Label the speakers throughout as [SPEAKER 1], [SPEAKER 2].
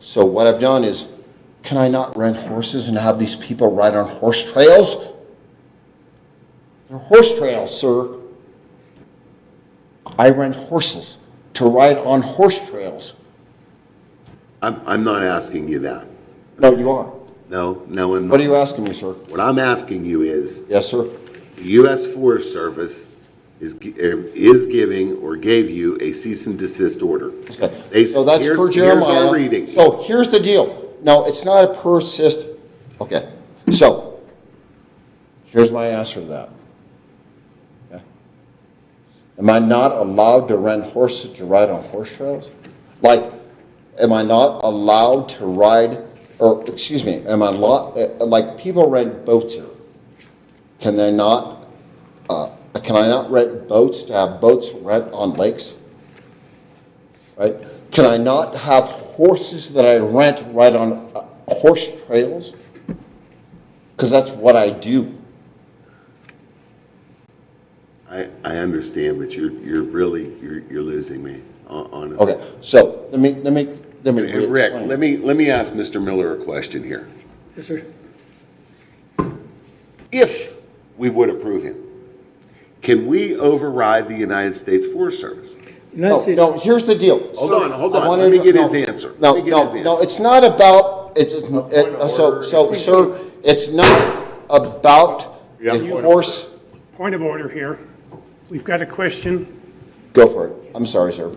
[SPEAKER 1] So what I've done is, can I not rent horses and have these people ride on horse trails? They're horse trails, sir. I rent horses to ride on horse trails.
[SPEAKER 2] I'm, I'm not asking you that.
[SPEAKER 1] No, you are.
[SPEAKER 2] No, no, I'm
[SPEAKER 1] What are
[SPEAKER 2] not.
[SPEAKER 1] you asking me, sir?
[SPEAKER 2] What I'm asking you is,
[SPEAKER 1] Yes, sir.
[SPEAKER 2] the U.S. Forest Service is, gi- er, is giving or gave you a cease and desist order.
[SPEAKER 1] Okay,
[SPEAKER 2] They-
[SPEAKER 1] so that's
[SPEAKER 2] here's-
[SPEAKER 1] per
[SPEAKER 2] here's our
[SPEAKER 1] Jeremiah.
[SPEAKER 2] reading.
[SPEAKER 1] So here's the deal. No, it's not a per assist. Okay, so here's my answer to that. Okay. Am I not allowed to rent horses to ride on horse trails? Like, am I not allowed to ride, or, excuse me, am I lot, like, people rent boats here. Can they not, uh, can I not rent boats to have boats rent on lakes? right? Can I not have horses that I rent ride on uh, horse trails? Because that's what I do.
[SPEAKER 2] I, I understand, but you're, you're really, you're, you're losing me, hon- honestly.
[SPEAKER 1] Okay, so let me, let me, let me.
[SPEAKER 2] And Rick,
[SPEAKER 1] re-explain.
[SPEAKER 2] let me, let me ask Mr. Miller a question here.
[SPEAKER 3] Yes, sir.
[SPEAKER 2] If we would approve him, can we override the United States Forest Service?
[SPEAKER 3] United
[SPEAKER 1] No,
[SPEAKER 3] States,
[SPEAKER 1] no, here's the deal.
[SPEAKER 2] Hold
[SPEAKER 1] Sir,
[SPEAKER 2] on, hold
[SPEAKER 1] I
[SPEAKER 2] on.
[SPEAKER 1] wanna
[SPEAKER 2] Let me
[SPEAKER 1] inter-
[SPEAKER 2] get
[SPEAKER 1] no,
[SPEAKER 2] his answer.
[SPEAKER 1] No,
[SPEAKER 2] Let me get
[SPEAKER 1] no,
[SPEAKER 2] his
[SPEAKER 1] no,
[SPEAKER 2] answer.
[SPEAKER 1] it's not about, it's, it's- it- uh, so, so, sir, it's not about the horse,
[SPEAKER 4] Point of order here. We've got a question.
[SPEAKER 1] go for it. I'm sorry, sir.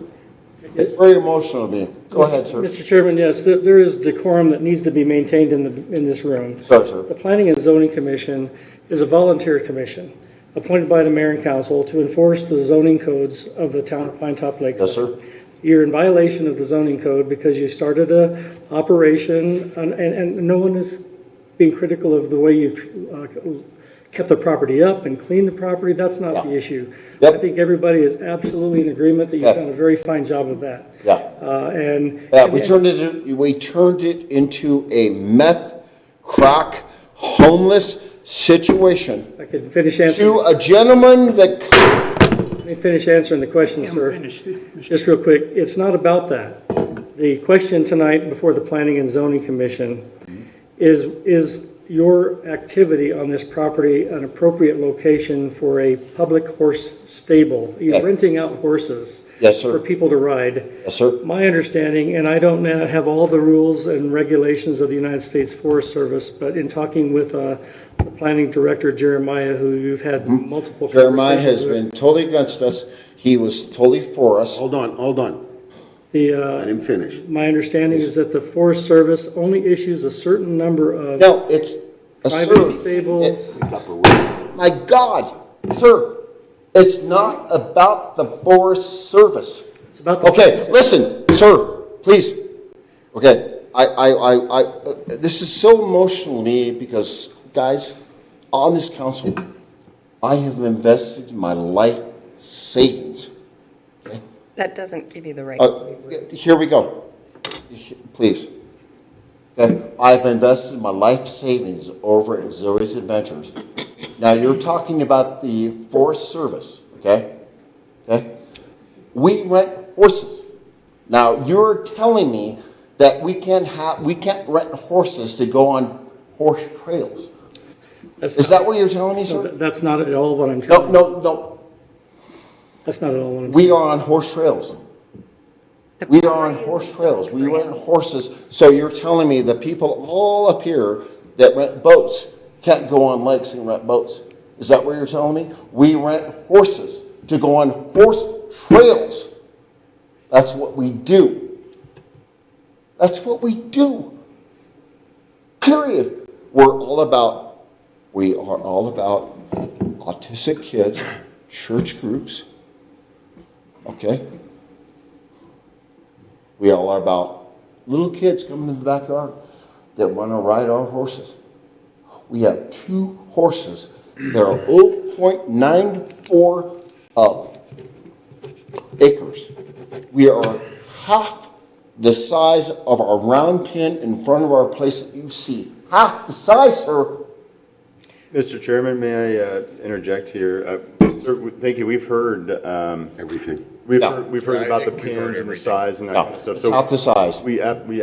[SPEAKER 1] It's very emotional of me. Go ahead, sir.
[SPEAKER 3] Mr. Chairman, yes, there- there is decorum that needs to be maintained in the, in this room.
[SPEAKER 1] Sorry, sir.
[SPEAKER 3] The Planning and Zoning Commission is a volunteer commission appointed by the mayor and council to enforce the zoning codes of the town of Pine Top Lakes.
[SPEAKER 1] Yes, sir.
[SPEAKER 3] You're in violation of the zoning code because you started a operation, and, and, and no one is being critical of the way you've uh, kept the property up and cleaned the property, that's not the
[SPEAKER 1] Yeah.
[SPEAKER 3] issue.
[SPEAKER 1] Yep.
[SPEAKER 3] I think everybody is absolutely in agreement that you've
[SPEAKER 1] Okay.
[SPEAKER 3] done a very fine job of that.
[SPEAKER 1] Yeah.
[SPEAKER 3] Uh, and.
[SPEAKER 1] Yeah, we turned it, we turned it into a meth, crack, homeless situation.
[SPEAKER 3] I can finish answering,
[SPEAKER 1] To a gentleman that,
[SPEAKER 3] let me finish answering the question,
[SPEAKER 4] I'm
[SPEAKER 3] sir.
[SPEAKER 4] finished.
[SPEAKER 3] Just real quick, it's not about that. The question tonight before the Planning and Zoning Commission is, is your activity on this property an appropriate location for a public horse stable?
[SPEAKER 1] Yeah.
[SPEAKER 3] You're renting out horses.
[SPEAKER 1] Yes, sir.
[SPEAKER 3] For people to ride.
[SPEAKER 1] yes, sir,
[SPEAKER 3] My understanding, and I don't know- have all the rules and regulations of the United States Forest Service, but in talking with uh, the planning director Jeremiah, who you've had multiple conversations with.
[SPEAKER 1] Mm-hmm. Jeremiah has been totally against us. He was totally for us.
[SPEAKER 2] Hold on, hold on.
[SPEAKER 3] The,
[SPEAKER 2] I
[SPEAKER 3] uh,
[SPEAKER 2] didn't finish.
[SPEAKER 3] my understanding is that the Forest Service only issues a certain number of
[SPEAKER 1] No, it's a
[SPEAKER 3] private
[SPEAKER 1] sir.
[SPEAKER 3] stables.
[SPEAKER 1] My God, sir, it's not about the Forest Service.
[SPEAKER 3] It's about the-
[SPEAKER 1] Okay, listen, sir, please. Okay, I, I, I, I, uh, this is so emotional to me because, guys, on this council, I have invested my life savings.
[SPEAKER 5] That doesn't give you the right.
[SPEAKER 1] Uh, here we go. Please. Okay, I've invested my life savings over at Zoe's Adventures. Now, you're talking about the Forest Service, okay? Okay? We rent horses. Now, you're telling me that we can't have, we can't rent horses to go on horse trails.
[SPEAKER 3] That's
[SPEAKER 1] Is
[SPEAKER 3] not-
[SPEAKER 1] that what you're telling me,
[SPEAKER 3] no,
[SPEAKER 1] sir?
[SPEAKER 3] that- That's not at all what I'm
[SPEAKER 1] No,
[SPEAKER 3] telling you.
[SPEAKER 1] no, no.
[SPEAKER 3] That's not at all what I'm.
[SPEAKER 1] We are on horse trails.
[SPEAKER 5] The
[SPEAKER 1] We are on
[SPEAKER 5] property is
[SPEAKER 1] horse
[SPEAKER 5] reserved
[SPEAKER 1] trails, we
[SPEAKER 5] for
[SPEAKER 1] rent
[SPEAKER 5] animals.
[SPEAKER 1] horses, so you're telling me the people all up here that rent boats can't go on lakes and rent boats? Is that what you're telling me? We rent horses to go on horse trails. That's what we do. That's what we do. Period. We're all about, we are all about autistic kids, church groups, okay? We all are about little kids coming in the backyard that want to ride our horses. We have two horses that are 0.94 uh, acres. We are half the size of our round pin in front of our place that you see. Half the size, sir.
[SPEAKER 6] Mr. Chairman, may I uh, interject here? Uh, Sir, w- thank you, we've heard, um,
[SPEAKER 2] Everything.
[SPEAKER 6] we've
[SPEAKER 1] No.
[SPEAKER 6] heard, we've heard about the pins and the size and that
[SPEAKER 1] No,
[SPEAKER 6] kind of stuff.
[SPEAKER 1] it's
[SPEAKER 6] So
[SPEAKER 1] half the size.
[SPEAKER 6] We, ab- we